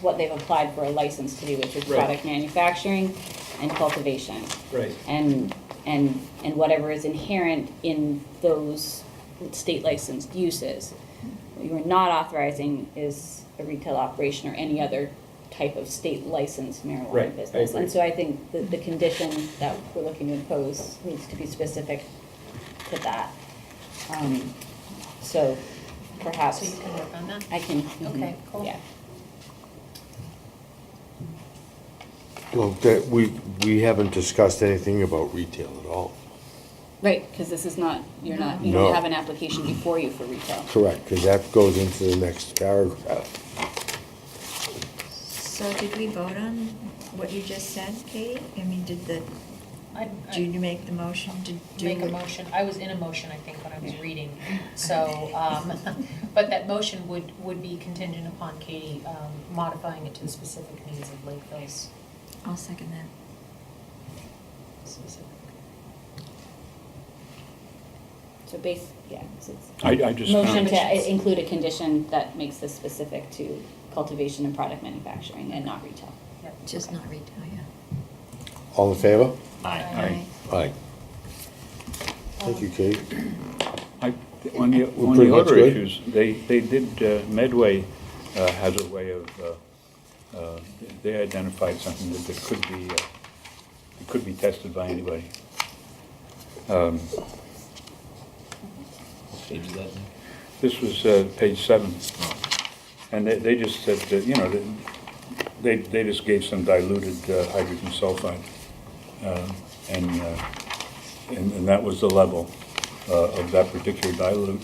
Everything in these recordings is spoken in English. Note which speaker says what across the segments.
Speaker 1: what they've applied for a license to do, which is
Speaker 2: Right.
Speaker 1: product manufacturing and cultivation.
Speaker 2: Right.
Speaker 1: And, and, and whatever is inherent in those state licensed uses. What you are not authorizing is a retail operation or any other type of state licensed
Speaker 2: Right, I
Speaker 1: marijuana business.
Speaker 2: agree.
Speaker 1: And so I think that the condition that we're looking to impose needs to be specific to that. Um, So perhaps.
Speaker 3: So you can work on that?
Speaker 1: I can. mhm,
Speaker 3: Okay, cool.
Speaker 1: Yeah.
Speaker 4: Well, that, we, we haven't discussed anything about retail at all.
Speaker 1: Right, because this is not, you're not, you
Speaker 4: No.
Speaker 1: don't have an application before you for retail.
Speaker 4: Correct, because that goes into the next paragraph.
Speaker 5: So did we vote on what you just said, Katie? I mean, did the,
Speaker 3: I
Speaker 5: did you make the motion to do?
Speaker 3: make a
Speaker 5: what-
Speaker 3: motion, I was in a motion, I think, when I was reading, so, um, but that motion would, would be contingent upon Katie um, modifying it to the specific needs of Lakeville's
Speaker 5: I'll second that.
Speaker 3: specific.
Speaker 1: So base, yeah, so it's.
Speaker 6: I, I just
Speaker 1: Motion
Speaker 6: found,
Speaker 1: to i- include a condition that makes this specific to cultivation and product manufacturing and not retail.
Speaker 3: Yep.
Speaker 5: Just not retail, yeah.
Speaker 4: All in favor?
Speaker 6: I,
Speaker 4: Aye. Thank you, Kate.
Speaker 6: I, on the,
Speaker 4: We're
Speaker 6: on
Speaker 4: pretty
Speaker 6: the
Speaker 4: much
Speaker 6: other
Speaker 4: good.
Speaker 6: issues, they, they did, uh, Medway uh, has a way of, uh, uh, they identified something that that could be, uh, it could be tested by anybody. Um,
Speaker 2: Page eleven.
Speaker 6: This was uh, page seven. And they, they just said, that, you know, that they, they just gave some diluted uh, hydrogen sulfide. uh, And, uh, and and that was the level uh, of that particular dilute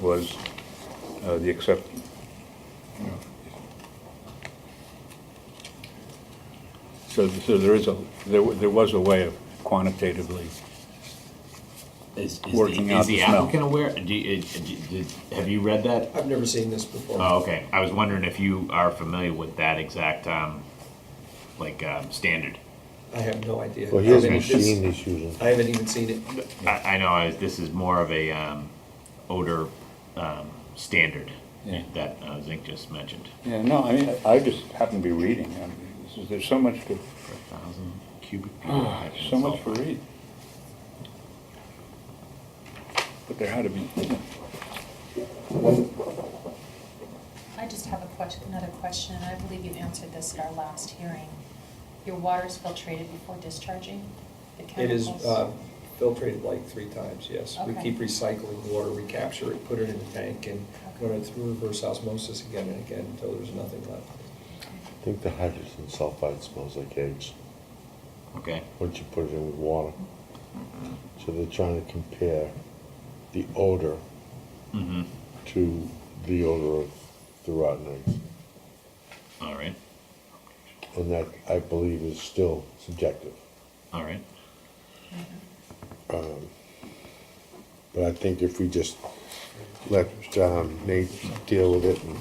Speaker 6: was uh, the accept. you know. So, so there is a, there, wa- there was a way of quantitatively,
Speaker 7: Is, is
Speaker 6: working
Speaker 7: the,
Speaker 6: out
Speaker 7: is the
Speaker 6: the smell.
Speaker 7: applicant aware? Do you, uh, do you- did- have you read that?
Speaker 2: I've never seen this before.
Speaker 7: Oh, okay. I was wondering if you are familiar with that exact, um, like, um, standard.
Speaker 2: I have no idea.
Speaker 4: Well, here's
Speaker 2: I
Speaker 4: a
Speaker 2: haven't- it's-
Speaker 4: machine he's using.
Speaker 2: I haven't even seen it.
Speaker 7: I, I know I, this is more of a um, odor um, standard
Speaker 6: Yeah.
Speaker 7: that uh, Zink just mentioned.
Speaker 6: yeah, no, I mean, I just happened to be reading. I mean, this is- There's so much to,
Speaker 7: For a thousand uh, cubic feet. of
Speaker 6: Oh,
Speaker 7: hydrogen
Speaker 6: so much to
Speaker 7: sulfide.
Speaker 6: read. But there had to be,
Speaker 3: I just have a question, another question, and I believe you answered this at our last hearing. Your water is filtrated before discharging the
Speaker 2: It is
Speaker 3: chemicals?
Speaker 2: uh, filtrated like three times, yes. We
Speaker 3: Okay.
Speaker 2: keep recycling water, we capture it, put it in the tank, and run it through reverse osmosis again and again until there's nothing left.
Speaker 4: I think the hydrogen sulfide smells like eggs,
Speaker 7: Okay.
Speaker 4: once you put it in with water. So they're trying to compare the odor
Speaker 7: Mm-hmm.
Speaker 4: to the odor of the rotten eggs.
Speaker 7: All right.
Speaker 4: And that, I believe, is still subjective.
Speaker 7: All right.
Speaker 4: But I think if we just let um, Nate deal with it, and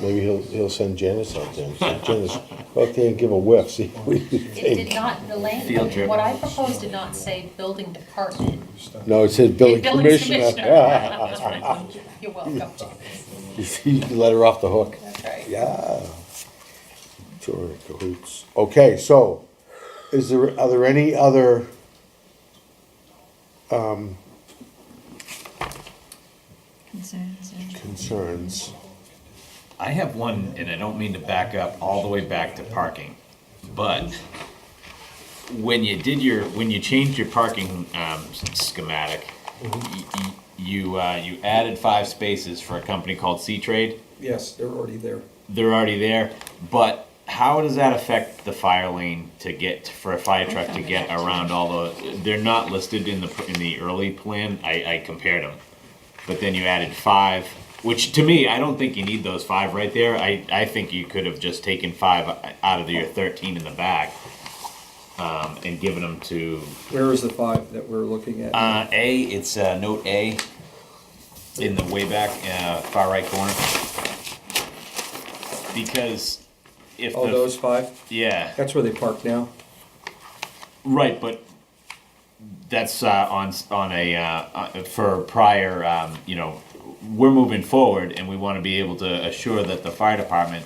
Speaker 4: maybe he'll, he'll send Janice out there. and say, Janice, go out there and give a whiff, see what you
Speaker 3: It did
Speaker 4: think.
Speaker 3: not, the
Speaker 7: Field
Speaker 3: language,
Speaker 7: trip.
Speaker 3: what I proposed did not say building department.
Speaker 4: No, it says building
Speaker 3: Building
Speaker 4: commissioner.
Speaker 3: That's right. You're welcome.
Speaker 4: You see, you can let her off the hook.
Speaker 3: That's right.
Speaker 4: Yeah. Two are in cahoots. Okay, so, is there, are there any other, um,
Speaker 5: Concerns or?
Speaker 4: concerns?
Speaker 7: I have one, and I don't mean to back up all the way back to parking, but when you did your, when you changed your parking um, schematic, y- y- you, uh, you added five spaces for a company called C-Trade.
Speaker 2: Yes, they're already there.
Speaker 7: They're already there, but how does that affect the fire lane to get, for a fire truck to get around all the, they're not listed in the, pr- in the early plan, I, I compared them. But then you added five, which to me, I don't think you need those five right there, I, I think you could have just taken five uh, out of your thirteen in the back. Um, and given them to,
Speaker 2: Where is the five that we're looking at?
Speaker 7: uh, A, it's, uh, note A in the way back, uh, far right corner. Because if the.
Speaker 2: Oh, those five?
Speaker 7: Yeah,
Speaker 2: That's where they park now?
Speaker 7: right, but that's uh, on s- on a uh, uh, for prior. Um, you know, we're moving forward, and we want to be able to assure that the fire department